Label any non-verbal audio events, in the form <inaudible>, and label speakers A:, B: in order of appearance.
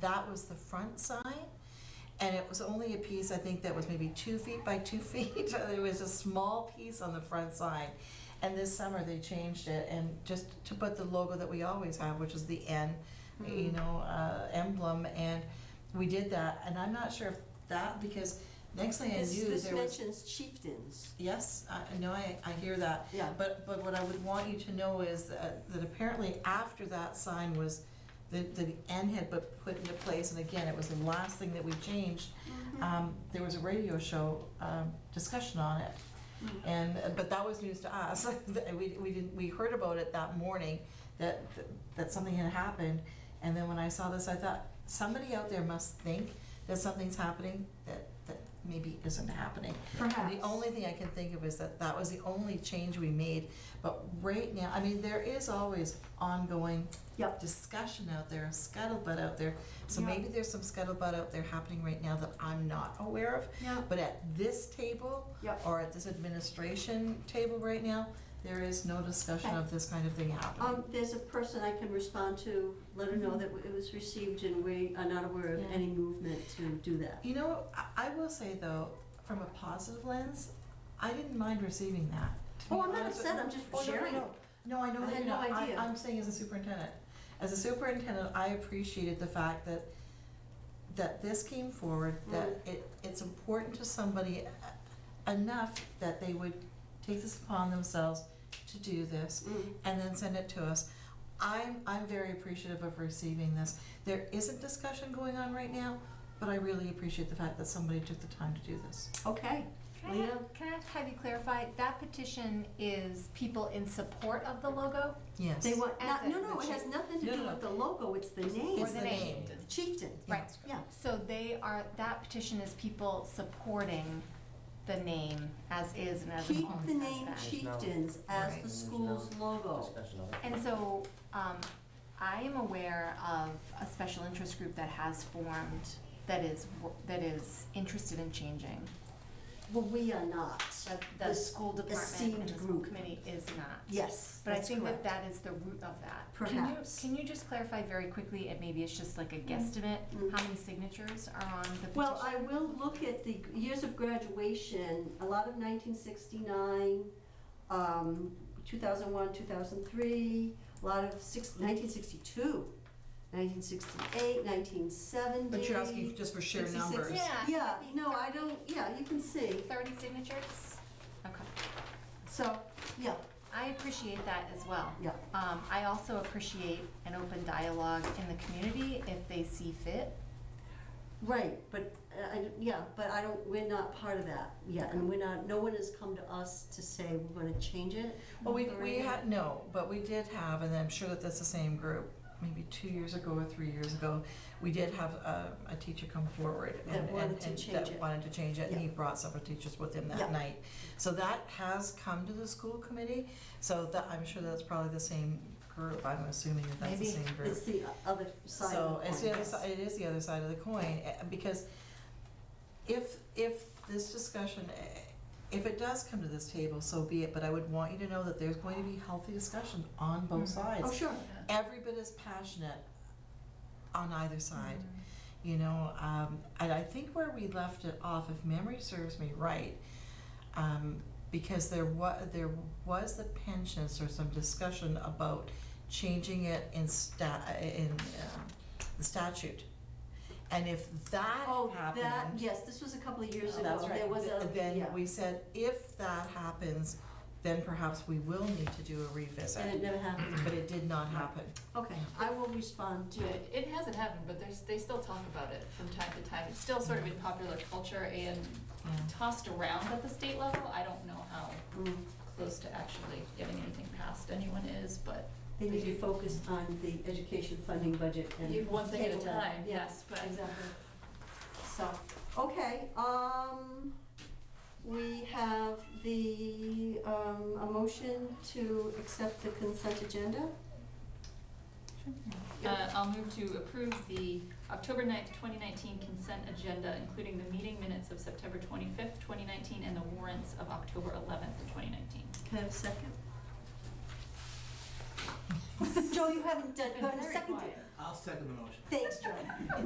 A: that was the front sign. And it was only a piece, I think, that was maybe two feet by two <laughs> feet. It was a small piece on the front sign. And this summer, they changed it and just to put the logo that we always have, which is the N, you know, uh, emblem. And we did that. And I'm not sure if that, because next thing I
B: This,
A: knew,
B: this
A: there was.
B: mentions chieftains,
A: Yes, I I know, I, I hear that.
B: yeah.
A: But, but what I would want you to know is that, that apparently after that sign was, the, the N had been put into place, and again, it was the last thing that we changed. Um, there was a radio show, um, discussion on it,
B: Mhm.
A: and, but that was news to us. <laughs> That We, we didn't, we heard about it that morning, that, that something had happened, and then when I saw this, I thought, somebody out there must think that something's happening that, that maybe isn't happening.
C: Perhaps.
A: The only thing I can think of is that that was the only change we made, but right now, I mean, there is always ongoing
C: Yep.
A: discussion out there, scuttlebutt out there. So
C: Yeah.
A: maybe there's some scuttlebutt out there happening right now that I'm not aware of,
C: Yeah.
A: but at this table
C: Yep.
A: or at this administration table right now, there is no discussion of this kind of thing happening.
B: Um, there's a person I can respond to, let her know that it was received and we are not aware of
A: Yeah.
B: any movement to do that.
A: You know, I, I will say though, from a positive lens, I didn't mind receiving that. to be
B: Oh, I'm not
A: honest with
B: upset,
A: you.
B: I'm just
A: Oh, no, no,
B: sharing.
A: no. No, I know
B: I
A: that
B: had
A: you're
B: no
A: not. I,
B: idea.
A: I'm saying as a superintendent, as a superintendent, I appreciated the fact that, that this came forward,
B: Mm-hmm.
A: that it, it's important to somebody e, enough that they would take this upon themselves to do this
B: Mm.
A: and then send it to us. I'm, I'm very appreciative of receiving this. There isn't discussion going on right now, but I really appreciate the fact that somebody took the time to do this.
B: Okay,
D: Can I,
B: Leah?
D: have- can I have you clarify, that petition is people in support of the logo
A: Yes.
B: they want, not- no, no, it
D: As a-
B: has nothing to
A: No,
B: do
A: no,
B: with the logo, it's the name,
D: or
A: It's
D: the
A: the
D: name?
A: name.
B: the chieftain,
D: Right.
B: yeah.
D: So they are, that petition is people supporting the name as is and as it
B: Keep
D: always
B: the
D: has
B: name
D: been.
E: Chief.
B: chieftains as
A: Right.
B: the school's logo.
E: Discussion of it.
D: And so, um, I am aware of a special interest group that has formed that is, wo- that is interested in changing.
B: Well, we are not,
D: The, the
B: This
D: school department
B: esteemed
D: and the school
B: group.
D: committee is not.
B: yes,
D: But I
B: that's
D: think that
B: correct.
D: that is the root of that. Can you-
B: Perhaps.
D: Can you just clarify very quickly, and maybe it's just like a guesstimate,
B: Mm.
D: how many signatures are on the petition?
B: Well, I will look at the years of graduation, a lot of 1969, um, 2001, 2003, a lot of six- 1962, 1968, 1970.
A: But you're asking just for sheer
B: 66.
A: numbers.
D: Yeah. it
B: Yeah,
D: could be
B: no, I don't, yeah, you can see,
D: Thirty signatures? Okay.
B: so, yeah,
D: I appreciate that as well.
B: yeah.
D: Um, I also appreciate an open dialogue in the community if they see fit.
B: Right, but, uh, I, yeah, but I don't, we're not part of that yet, and we're not, no one has come to us to say we're gonna change it.
A: Well, we, we
B: Lorraine?
A: had, no, but we did have, and I'm sure that that's the same group, maybe two years ago or three years ago, we did have a, a teacher come forward
B: That
A: and,
B: wanted
A: and,
B: to
A: and
B: change
A: that
B: it.
A: wanted to change it, and he brought several teachers with him
B: Yeah.
A: that night. So that has come to the school committee, so that, I'm sure that's probably the same group, I'm assuming that that's the
D: Maybe.
A: same group.
B: It's the other side
A: So
B: of the coin.
A: it's the other
B: yes.
A: side, it is the other side of the coin, eh, because if, if this discussion, eh, if it does come to this table, so be it, but I would want you to know that there's going to be healthy discussion on both
D: Mhm.
B: Oh,
A: sides.
B: sure.
A: Every bit as passionate on either side,
B: Mm-hmm.
A: you know, um, and I think where we left it off, if memory serves me right, um, because there wa, there was the pensions or some discussion about changing it in sta, in, um, the statute. And if that
B: Oh, that,
A: happened,
B: yes, this was a couple of years
A: Oh, that's
B: ago,
A: right,
B: there was a,
A: th-
B: yeah,
A: then we said, if that happens, then perhaps we will need to do a
B: and
A: revisit,
B: it never happened,
A: <clears throat> but it did not happen.
B: okay, I will respond to
F: Yeah, it hasn't happened, but there's, they still talk about it from time to time. It's still sort of in popular culture and
A: Yeah.
F: tossed around at the state level. I don't know how
B: Mm,
F: close to actually getting anything passed anyone is, but
B: They need to focus on the education funding budget and.
F: you, one thing at a
B: table that.
F: time,
B: Yeah,
F: yes, but.
B: Exactly, so, okay, um, we have the, um, a motion to accept the consent agenda.
F: Uh, I'll move to approve the October 9th, twenty nineteen consent agenda, including the meeting minutes of September twenty-fifth, twenty nineteen, and the warrants of October eleventh, twenty nineteen.
B: Can I have a second? <laughs> Joe, you haven't done, you haven't seconded.
E: I'll second the motion.
B: Thanks, John.